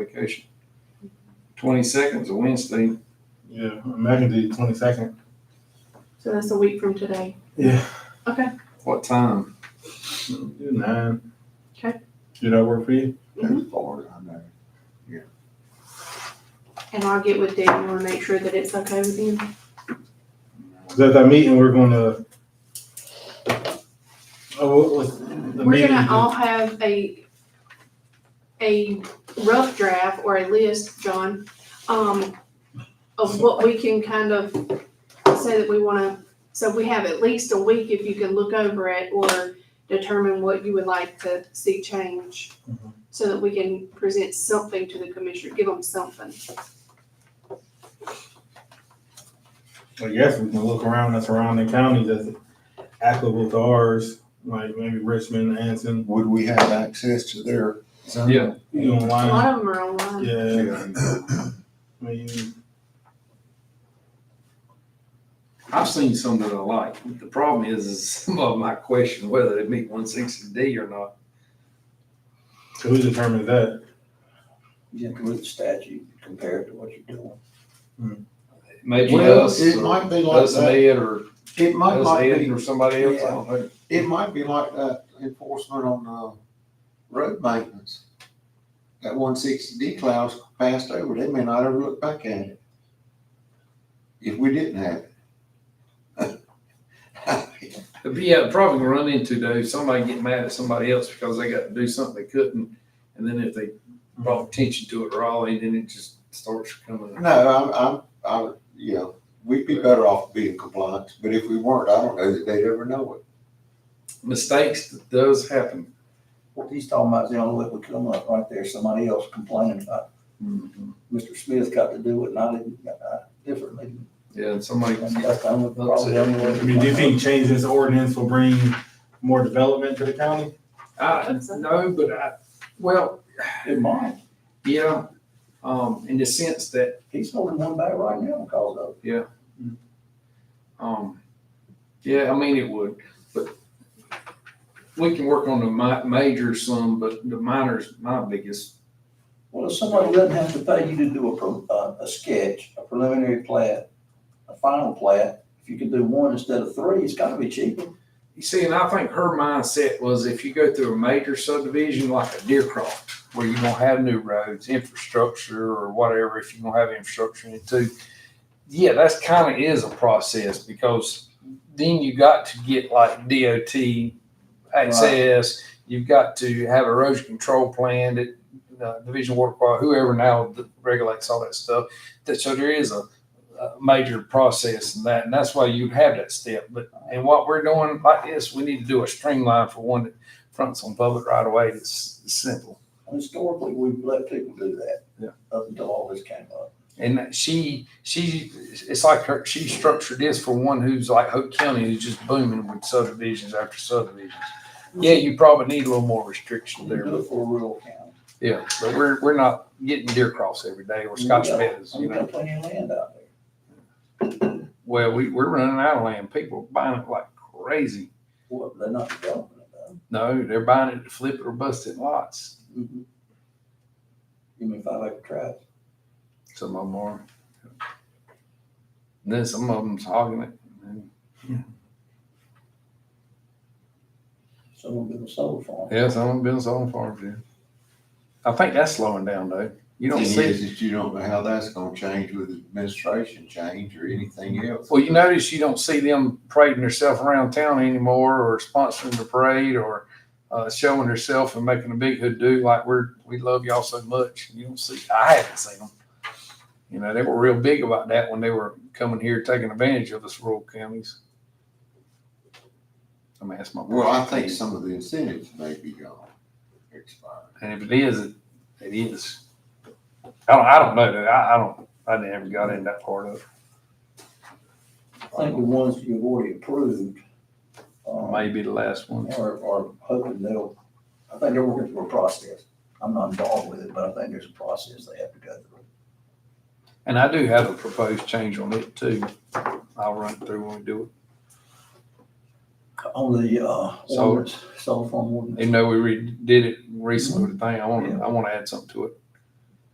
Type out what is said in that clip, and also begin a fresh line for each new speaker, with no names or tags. vacation. Twenty-second's a Wednesday.
Yeah, I can do twenty second.
So that's a week from today.
Yeah.
What time?
Do nine.
Okay.
Do that work for you?
Mhm.
Florida, I know.
And I'll get with Daniel and make sure that it's okay with him.
Cause at that meeting, we're gonna. Oh, what was the
We're
meeting?
gonna all have a, a rough draft or a list, John, um, of what we can kind of say that we wanna, so we have at least a week if you can look over it or determine what you would like to see change.
Mhm.
So that we can present something to the commissioner, give them something.
I guess we can look around the surrounding counties that's applicable to ours, like maybe Richmond, Anson,
Would we have access to their zone?
Yeah.
you
A
online.
lot of them are online.
Yeah,
Yeah.
I mean,
I've seen some that I like. The problem is, is some of them I question whether they meet one sixty D or not.
so who determines that?
Yeah, with the statute compared to what you're doing.
Maybe
Well,
us
it
or
might be like
us and
that.
Ed or
It might
us
like
Ed
be,
or somebody else. I don't know.
it might be like that enforcement on, uh, road maintenance. That one sixty D clause passed over, they may not ever look back at it. If we didn't have it.
But yeah, probably gonna run into though, somebody get mad at somebody else because they got to do something they couldn't. And then if they brought attention to it Raleigh, then it just starts coming.
No, I'm, I'm, I, you know, we'd be better off being compliant, but if we weren't, I don't know that they'd ever know it.
Mistakes does happen.
What he's talking about is the only way it would come up right there, somebody else complaining about,
Mm-hmm.
Mr. Smith got to do it and I didn't, uh, differently.
Yeah, and somebody.
And That's the only, probably the only way.
I mean, do you think change this ordinance will bring more development to the county?
I, no, but I, well,
It might.
yeah, um, in the sense that,
He's holding one back right now because of
um, yeah, I mean, it would, but we can work on the mi- major some, but the minor's my biggest.
Well, if somebody doesn't have to pay you to do a, pre- uh, a sketch, a preliminary plat, a final plat, if you can do one instead of three, it's gotta be cheaper.
You see, and I think her mindset was if you go through a major subdivision like a Deercroft, where you're gonna have new roads, infrastructure or whatever, if you're gonna have infrastructure in it too. Yeah, that's kind of is a process because then you got to get like DOT access. You've got to have erosion control plan that uh, Division of Water Quality, whoever now regulates all that stuff. That, so there is a, a major process in that, and that's why you have that step. But and what we're doing like this, we need to do a streamline for one that fronts on public right away. It's simple.
Historically, we've let people do that.
Yeah.
Up until all this came up.
And she, she, it's like her, she structured this for one who's like Hope County, who's just booming with subdivisions after subdivisions. Yeah, you probably need a little more restriction
You
there,
do
but
it for a rural county.
yeah, but we're, we're not getting deer cross every day or Scotch meadows, you
We've
know.
got plenty of land out there.
Well, we, we're running out of land. People are buying it like crazy.
Well, they're not developing it though.
No, they're buying it to flip it or bust it lots.
You mean five acre tracts?
Some of them are. And then some of them's hogging it. and-
Some of them are solar farm.
Yeah, some of them been sold farms, yeah. I think that's slowing down though. You
Thing
don't see,
is that you don't know how that's gonna change with administration change or anything else.
well, you notice you don't see them parading themselves around town anymore or sponsoring the parade or uh, showing herself and making a big hoodoo like we're, we love y'all so much. You don't see, I haven't seen them. You know, they were real big about that when they were coming here, taking advantage of us rural counties. I mean, that's my.
Well, I think some of the incentives may be gone, expired.
And if it is, it, it is. I don't, I don't know. dude. I, I don't, I never got in that part of it.
I think the ones that you've already approved, um, are,
Maybe the last one.
are hoping they'll, I think they're working through a process. I'm not involved with it, but I think there's a process they have to go through.
And I do have a proposed change on it too. I'll run it through when we do
On the, uh,
So-
ordinance, solar farm
it.
ordinance.
Even though we re- did it recently with the thing, I want to, I want to add something to it.